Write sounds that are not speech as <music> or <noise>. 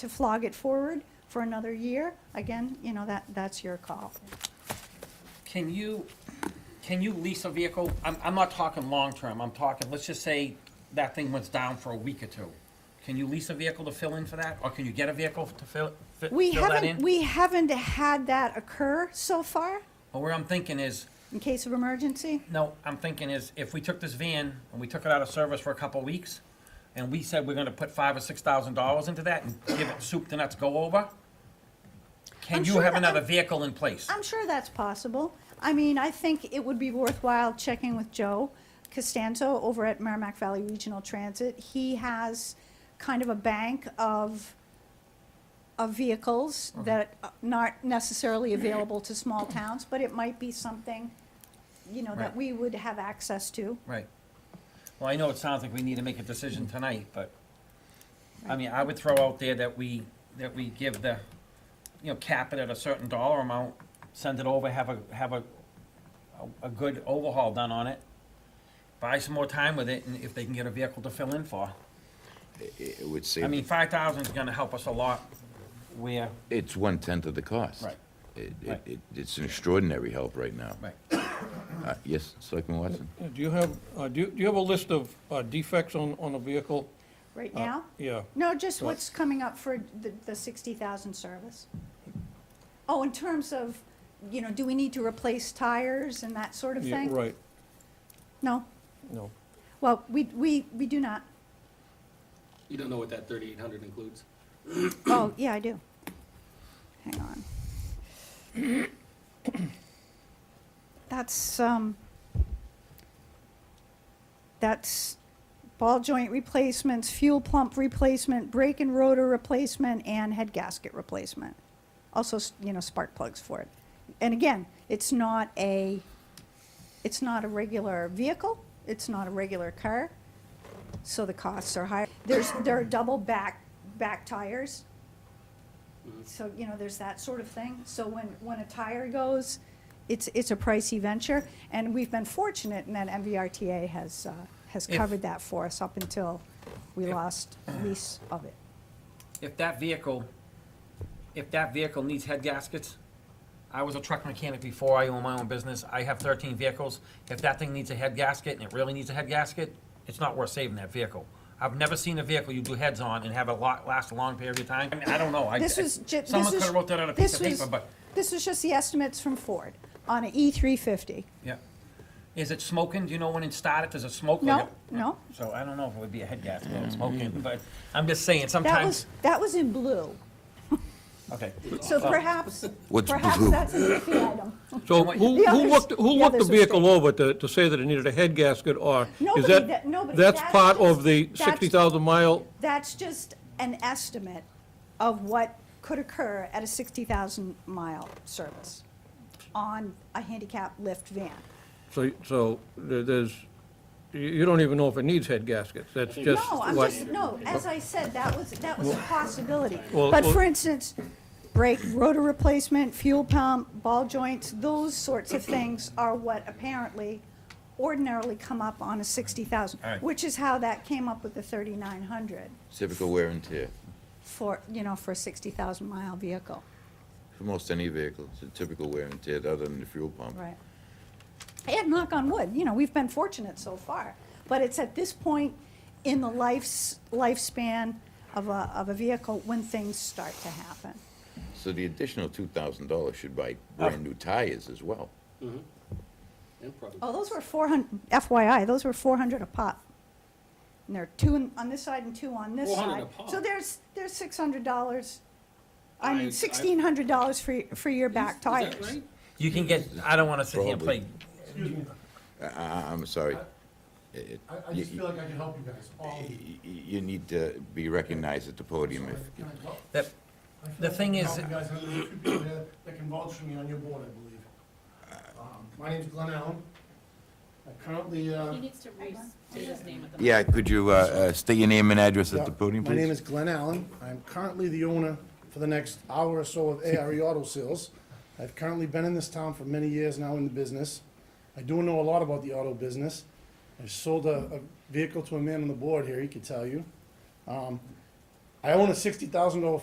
to flog it forward for another year, again, you know, that, that's your call. Can you, can you lease a vehicle? I'm, I'm not talking long-term, I'm talking, let's just say that thing was down for a week or two. Can you lease a vehicle to fill in for that, or can you get a vehicle to fill, fi- We fill that haven't, in? we haven't had that occur so far, But where I'm thinking is, in case of emergency. no, I'm thinking is, if we took this van and we took it out of service for a couple of weeks, and we said we're gonna put five or six thousand dollars into that and give it soup to nuts go over, I'm can you sure have that- another I'm- vehicle in place? I'm sure that's possible. I mean, I think it would be worthwhile checking with Joe Costanzo over at Merrimack Valley Regional Transit. He has kind of a bank of, of vehicles Uh-huh. that are not necessarily available to small towns, but it might be something, you know, that Right. we would have access to. Right. Well, I know it sounds like we need to make a decision tonight, but, I mean, I would throw out there that we, that we give the, you know, cap it at a certain dollar amount, send it over, have a, have a, a- a good overhaul done on it, buy some more time with it, and if they can get a vehicle to fill in for. It would I mean, save, five thousand is gonna help us a lot where, it's one-tenth of the cost. Right. It, it, Right. it- it's an extraordinary help right now. right, Uh, Yes, Selectman Watson? Yeah, Do you have, uh, do you, do you have a list of uh, defects on, on a vehicle? Right Uh, now? Yeah, No, just Right. what's coming up for the, the sixty thousand service. Oh, in terms of, you know, do we need to replace tires and that sort of yeah, thing? right, No, no. well, we, we, we do not. You don't know what that thirty-eight hundred includes? Oh, yeah, I do. Hang on. That's, um, that's ball joint replacements, fuel pump replacement, brake and rotor replacement, and head gasket replacement. Also, s- you know, spark plugs for it. And again, it's not a, it's not a regular vehicle, it's not a regular car, so the costs are higher. There's, there are double back, back tires. So, you know, there's that sort of thing. So when, when a tire goes, it's, it's a pricey venture. And we've been fortunate in that MVRTA has, uh, has If- covered that for us up until we lost lease of it. if that vehicle, if that vehicle needs head gaskets, I was a truck mechanic before I owned my own business, I have thirteen vehicles, if that thing needs a head gasket and it really needs a head gasket, it's not worth saving that vehicle. I've never seen a vehicle you do heads on and have it lot, last a long period of time, I mean, I don't know, I. This was ju- this Someone was- could've wrote that on a this piece of was- paper, but, This was just the estimates from Ford on an E three fifty. yeah. Is it smoking, do you know when it started, does it smoke? No, like a- no. So I don't know if it would be a head gasket, or smoking, but I'm just saying, That sometimes, was, that was in blue. okay. So perhaps, <laughs> What's perhaps blue? that's an iffy item. So what- who, The who others- looked, the who looked the others are vehicle safe. over to, to say that it needed a head gasket or? Nobody is that- nobody, That's that's part just- of the that's- sixty thousand mile, That's just an estimate of what could occur at a 60,000 mile service on a handicap lift van. so, so there- there's, you, you don't even know if it needs head gaskets, that's just No, I'm what. just, no, as I said, that was, that was a possibility. Well- But well- for instance, brake, rotor replacement, fuel pump, ball joints, those sorts of things are what apparently ordinarily come up on a 60,000, All right. which is how that came up with the 3,900 Typical wear and tear for, you know, for a 60,000 mile vehicle. for most any vehicle. It's a typical wear and tear, other than the fuel pump. Right. And knock on wood, you know, we've been fortunate so far, but it's at this point in the life's, lifespan of a, of a vehicle when things start to happen. So the additional two thousand dollars should buy brand-new tires as well. And probably- Oh, those were four hundred, FYI, those were four hundred a pop. And there are two in- on this side and two on this side. 400 a pop. So there's, there's six hundred dollars, I I- I- mean, sixteen hundred dollars for, y- for your back Is that tires. right? You can get, I don't wanna sit here and Probably. play I, I, I'm sorry. It- it- I, I you- just feel like I can help you guys Um, all. you- you- You need to be recognized at the podium if, Can I help? that. I feel The like I thing can is- help you guys, and there's a few people there that can vouch for me on your board, I believe. Um, My name's Glenn Allen. I currently, uh. He needs to restate his name at the. yeah, could you, uh, uh, state your name and address at the podium, My name please? is Glenn Allen. I'm currently the owner for the next hour or <laughs> so of ARE Auto Sales. I've currently been in this town for many years now in the business. I do know a lot about the auto business. I sold a, a vehicle to a man on the board here, he could tell you. Um, I own a sixty thousand dollar